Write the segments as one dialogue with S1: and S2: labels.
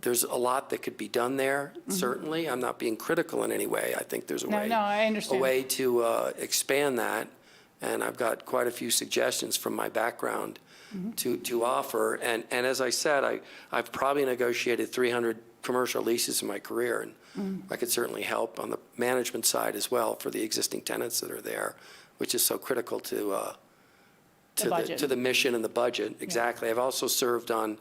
S1: there's a lot that could be done there, certainly. I'm not being critical in any way. I think there's a
S2: Mm-hmm. No,
S1: way.
S2: no, I understand.
S1: A way to uh, expand that, and I've got quite a few suggestions from my background
S2: Mm-hmm.
S1: to, to offer. And, and as I said, I, I've probably negotiated 300 commercial leases in my career,
S2: Mm.
S1: and I could certainly help on the management side as well for the existing tenants that are there, which is so critical to, uh, to the,
S2: budget.
S1: to the mission and the budget, exactly. I've also served on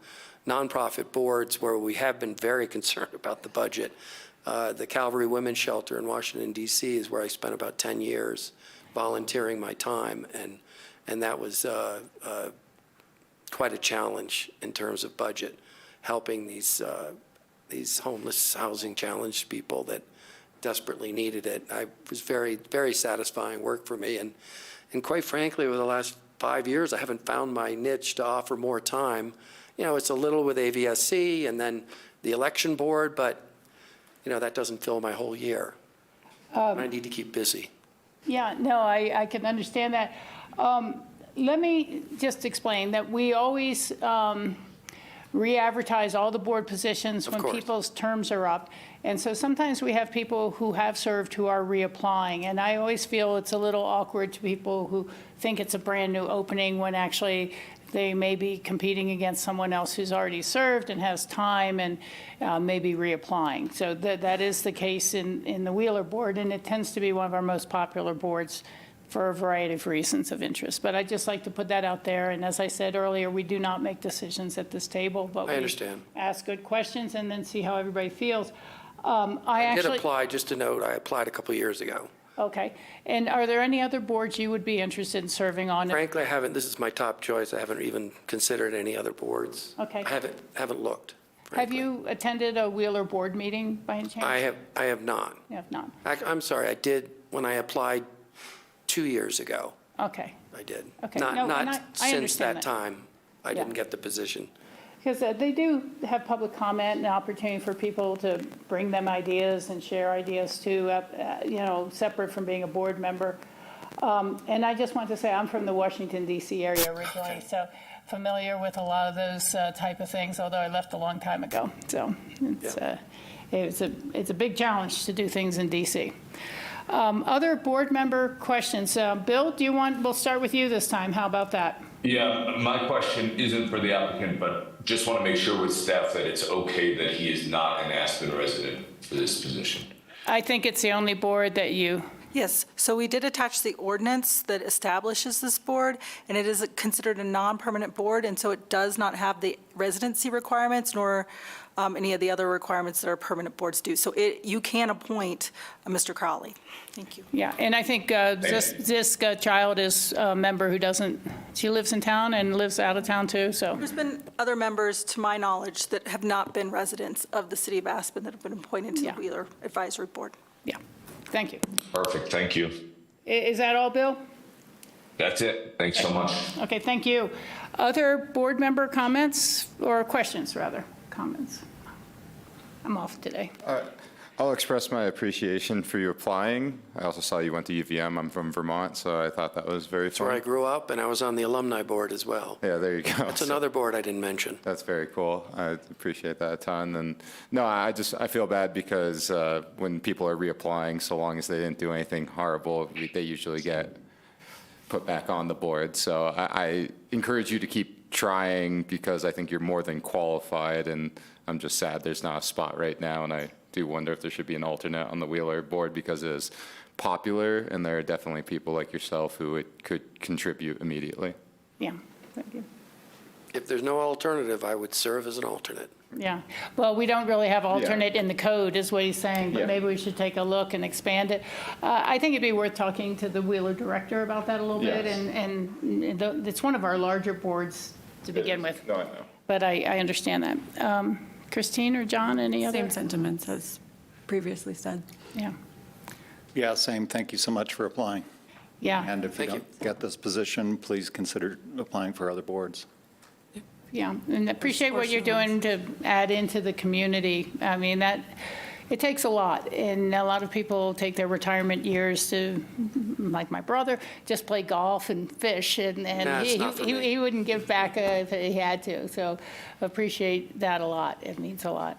S1: nonprofit boards where we have been very concerned about the budget. Uh, The Calvary Women's Shelter in Washington DC is where I spent about 10 years volunteering my time, and, and that was uh, uh, quite a challenge in terms of budget, helping these, uh, these homeless, housing challenged people that desperately needed it. I it was very, very satisfying work for me, and, and quite frankly, over the last five years, I haven't found my niche to offer more time. You know, it's a little with AVSC and then the election board, but, you know, that doesn't fill my whole year.
S2: Um,
S1: I need to keep busy.
S2: Yeah, no, I, I can understand that. Um, Let me just explain that we always um, re-advertise all the board positions when
S1: course.
S2: people's terms are up. And so sometimes we have people who have served who are reapplying. And I always feel it's a little awkward to people who think it's a brand-new opening when actually they may be competing against someone else who's already served and has time and uh, may be reapplying. So that, that is the case in, in the Wheeler Board, and it tends to be one of our most popular boards for a variety of reasons of interest. But I'd just like to put that out there, and as I said earlier, we do not make decisions at this table, but
S1: I
S2: we
S1: understand.
S2: ask good questions and then see how everybody feels. Um, I
S1: I did
S2: actually,
S1: apply, just to note, I applied a couple years ago.
S2: okay. And are there any other boards you would be interested in serving on?
S1: Frankly, I haven't, this is my top choice. I haven't even considered any other boards.
S2: Okay.
S1: I haven't, haven't looked.
S2: Have
S1: frankly.
S2: you attended a Wheeler Board meeting by any chance?
S1: I have, I have not.
S2: You have not.
S1: I, I'm sorry, I did when I applied two years ago.
S2: Okay.
S1: I did.
S2: Okay,
S1: Not-
S2: no, and I-
S1: Not
S2: I
S1: since
S2: understand
S1: that
S2: that.
S1: time. I
S2: Yeah.
S1: didn't get the position.
S2: Because uh, they do have public comment and opportunity for people to bring them ideas and share ideas too, uh, uh, you know, separate from being a board member. Um, And I just want to say, I'm from the Washington DC area originally, so familiar with a lot of those uh, type of things, although I left a long time ago. So it's, uh, it's a, it's a big challenge to do things in DC. Um, Other board member questions? Uh, Bill, do you want, we'll start with you this time. How about that?
S3: Yeah, my question isn't for the applicant, but just want to make sure with staff that it's okay that he is not an Aspen resident for this position.
S2: I think it's the only board that you
S4: Yes, so we did attach the ordinance that establishes this board, and it is considered a non-permanent board, and so it does not have the residency requirements nor um, any of the other requirements that our permanent boards do. So it, you can appoint uh, Mr. Crowley. Thank you.
S2: Yeah, and I think uh, this, this uh, child is a member who doesn't, she lives in town and lives out of town too, so,
S4: There's been other members, to my knowledge, that have not been residents of the city of Aspen that have been appointed to the
S2: Yeah.
S4: Wheeler Advisory Board.
S2: yeah. Thank you.
S3: Perfect, thank you.
S2: I- Is that all, Bill?
S3: That's it, thanks so much.
S2: Okay, thank you. Other board member comments, or questions, rather, comments? I'm off today.
S5: I'll express my appreciation for you applying. I also saw you went to UVM. I'm from Vermont, so I thought that was very
S1: Where I
S5: fun.
S1: grew up, and I was on the alumni board as well.
S5: Yeah, there you go.
S1: That's another board I didn't mention.
S5: That's very cool. I appreciate that a ton. And no, I just, I feel bad because uh, when people are reapplying, so long as they didn't do anything horrible, they usually get put back on the board. So I, I encourage you to keep trying because I think you're more than qualified. And I'm just sad there's not a spot right now. And I do wonder if there should be an alternate on the Wheeler board because it is popular and there are definitely people like yourself who it could contribute immediately.
S2: Yeah, thank you.
S1: If there's no alternative, I would serve as an alternate.
S2: Yeah, well, we don't really have alternate in the code, is what he's saying, but
S5: Yeah.
S2: maybe we should take a look and expand it. Uh, I think it'd be worth talking to the Wheeler Director about that a little bit,
S5: Yes.
S2: and, and the- it's one of our larger boards to begin with,
S5: No, I know.
S2: but I, I understand that. Um, Christine or John, any other?
S6: Same sentiments as previously said.
S2: Yeah,
S7: Yeah, same. Thank you so much for applying.
S2: yeah,
S7: And if you
S1: Thank you.
S7: don't get this position, please consider applying for other boards.
S2: yeah, and appreciate what you're doing to add into the community. I mean, that, it takes a lot, and a lot of people take their retirement years to, like my brother, just play golf and fish, and,
S1: Nah,
S2: and
S1: it's
S2: he,
S1: not for
S2: he-
S1: me.
S2: he wouldn't give back uh, if he had to, so appreciate that a lot, it means a lot.